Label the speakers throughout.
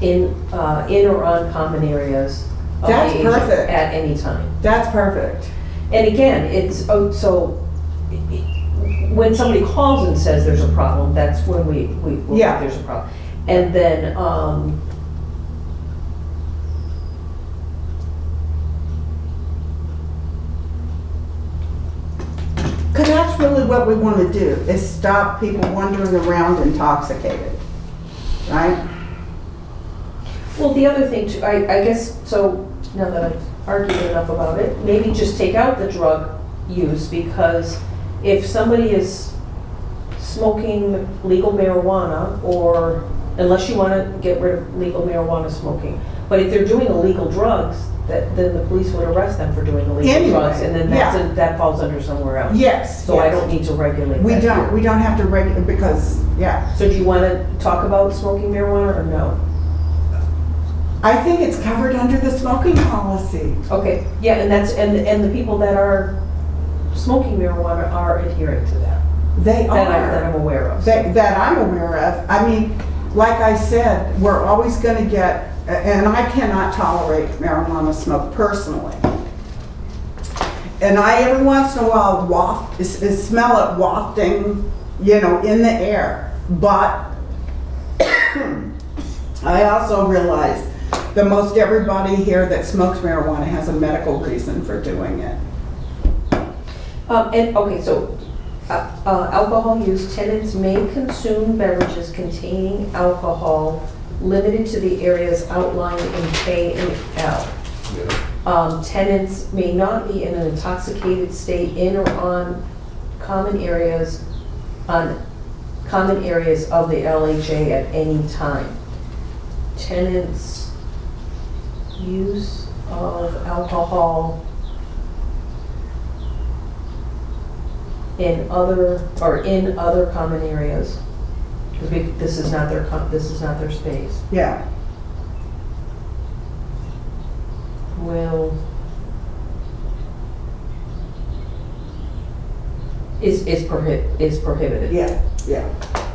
Speaker 1: in, uh, in or on common areas of the
Speaker 2: That's
Speaker 1: agent
Speaker 2: perfect.
Speaker 1: at any time.
Speaker 2: That's perfect.
Speaker 1: And again, it's, oh, so, i- i- when somebody calls and says there's a problem, that's when we, we, we-
Speaker 2: Yeah.
Speaker 1: there's a problem. And then, um,
Speaker 2: Because that's really what we want to do, is stop people wandering around intoxicated, right?
Speaker 1: well, the other thing too, I, I guess, so, now that I've argued enough about it, maybe just take out the drug use, because if somebody is smoking legal marijuana, or, unless you wanna get rid of legal marijuana smoking, but if they're doing illegal drugs, that, then the police would arrest them for doing illegal
Speaker 2: Anyway,
Speaker 1: drugs, and then that's,
Speaker 2: yeah.
Speaker 1: a- that falls under somewhere else.
Speaker 2: Yes.
Speaker 1: So I
Speaker 2: yes.
Speaker 1: don't need to regulate
Speaker 2: We
Speaker 1: that
Speaker 2: don't,
Speaker 1: here.
Speaker 2: we don't have to regulate, because, yeah.
Speaker 1: So do you wanna talk about smoking marijuana, or no?
Speaker 2: I think it's covered under the smoking policy.
Speaker 1: Okay, yeah, and that's, and, and the people that are smoking marijuana are adhering to that,
Speaker 2: They
Speaker 1: that I'm, that
Speaker 2: are,
Speaker 1: I'm aware of.
Speaker 2: that, that I'm aware of. I mean, like I said, we're always going to get, and I cannot tolerate marijuana smoke personally. And I, every once in a while, waft, s- s- smell it wafting, you know, in the air. But I also realize that most everybody here that smokes marijuana has a medical reason for doing it.
Speaker 1: Um, and, okay, so, uh, uh, alcohol use, tenants may consume beverages containing alcohol limited to the areas outlined in K and L. Um, tenants may not be in an intoxicated state in or on common areas, on common areas of the LHA at any time. Tenants' use of alcohol in other, or in other common areas. 'Cause we- This is not their, com- this is not their space.
Speaker 2: Yeah.
Speaker 1: Well, is, is prohib, is prohibited.
Speaker 2: Yeah, yeah.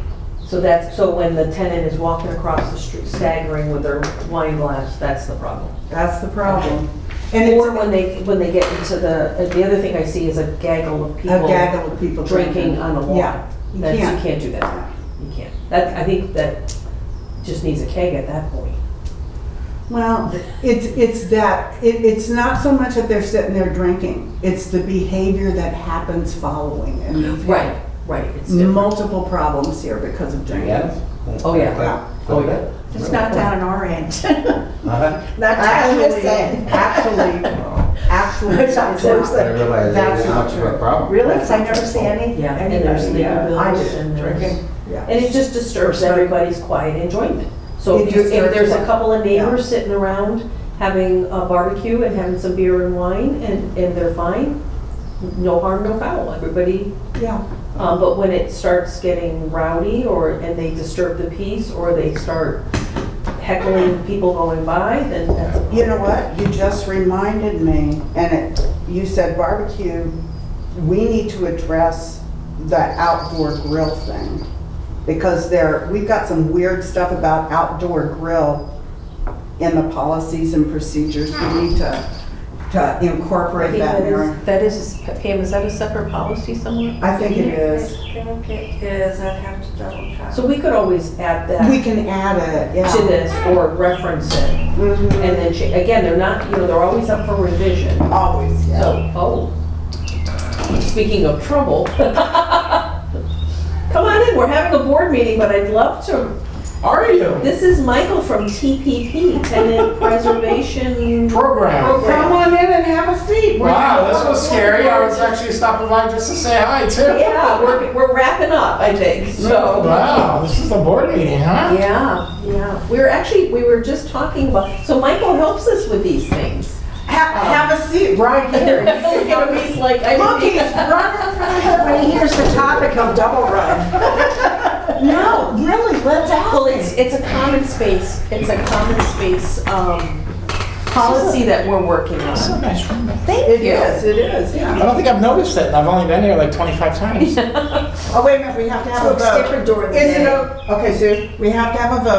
Speaker 1: So that's, so when the tenant is walking across the street staggering with their wine glass, that's the problem.
Speaker 2: That's the problem. And
Speaker 1: Or
Speaker 2: it's
Speaker 1: when they, when they get into the, uh, the other thing I see is a gaggle of
Speaker 2: a
Speaker 1: people.
Speaker 2: gaggle of people
Speaker 1: Drinking on the lawn.
Speaker 2: Yeah, you
Speaker 1: That's, you
Speaker 2: can't.
Speaker 1: can't do that. You can't. That, I think that just needs a keg at that point.
Speaker 2: Well, it's, it's that, it, it's not so much that they're sitting there drinking, it's the behavior that happens following. And we've had
Speaker 1: Mm-hmm. Right, it's different.
Speaker 2: Multiple problems here because of drinking.
Speaker 3: Yeah?
Speaker 1: Oh, yeah.
Speaker 3: Oh, yeah.
Speaker 4: It's not down in our end.
Speaker 3: Uh-huh.
Speaker 4: I'm just saying.
Speaker 2: Actually, actually, actually.
Speaker 4: It's not true.
Speaker 2: it's
Speaker 3: I
Speaker 2: not.
Speaker 3: didn't realize
Speaker 2: That's
Speaker 3: there's
Speaker 2: not
Speaker 3: much of
Speaker 2: true.
Speaker 3: a problem.
Speaker 4: Really? 'Cause I never see any,
Speaker 1: Yeah, and there's
Speaker 4: anybody.
Speaker 1: legal
Speaker 4: uh,
Speaker 2: I
Speaker 1: bills
Speaker 2: do,
Speaker 1: and there's.
Speaker 4: Drinking.
Speaker 2: Yeah.
Speaker 1: And it just disturbs everybody's quiet enjoyment. So
Speaker 2: It
Speaker 1: if you, if
Speaker 2: disturbs
Speaker 1: there's a
Speaker 2: them.
Speaker 1: couple of neighbors sitting around having a barbecue and having some beer and wine and, and they're fine, no harm, no foul, everybody.
Speaker 2: Yeah,
Speaker 1: Um, but when it starts getting rowdy or, and they disturb the peace or they start heckling people going by, then that's.
Speaker 2: you know what, you just reminded me, and it, you said barbecue, we need to address the outdoor grill thing. Because there, we've got some weird stuff about outdoor grill in the policies and procedures, we need to, to
Speaker 1: I
Speaker 2: incorporate
Speaker 1: think
Speaker 2: that
Speaker 1: that
Speaker 2: in our.
Speaker 1: is, that is, Pam, is that a separate policy somewhere?
Speaker 2: I think it is,
Speaker 4: I think it is, I'd have to double check.
Speaker 1: So we could always add
Speaker 2: we
Speaker 1: that
Speaker 2: can add it, yeah.
Speaker 1: to this or reference it.
Speaker 2: Mhm.
Speaker 1: And then, cha- again, they're not, you know, they're always up for revision,
Speaker 2: Always, yeah.
Speaker 1: so, oh. Speaking of trouble. Come on in, we're having a board meeting, but I'd love to,
Speaker 3: Are you?
Speaker 1: this is Michael from TPP, Tenant Preservation.
Speaker 3: Program.
Speaker 2: Come on in and have a seat. We're-
Speaker 3: Wow, this was scary. I was actually stopping by just to say hi too.
Speaker 1: Yeah, we're, we're wrapping up, I think, so.
Speaker 3: Wow, this is a board meeting, huh?
Speaker 1: Yeah, yeah, we were actually, we were just talking about, so Michael helps us with these things.
Speaker 2: Have, have a seat right here.
Speaker 1: You know, he's like, I.
Speaker 2: Look, he's running from
Speaker 4: When he hears the topic, he'll double run.
Speaker 2: No, really, let's
Speaker 1: Well, it's,
Speaker 2: ask
Speaker 1: it's a common space, it's a common space, um, policy that we're working
Speaker 3: It's a
Speaker 1: on.
Speaker 3: nice room. I
Speaker 2: It
Speaker 1: you.
Speaker 2: is, it is, yeah.
Speaker 3: don't think I've noticed it. and I've only been here like 25 times.
Speaker 2: Oh, wait a minute, we have to have
Speaker 4: So
Speaker 2: a
Speaker 4: it's
Speaker 2: vote.
Speaker 4: different during the
Speaker 2: Is it
Speaker 4: day.
Speaker 2: o- Okay, Sue, we have to have a vote.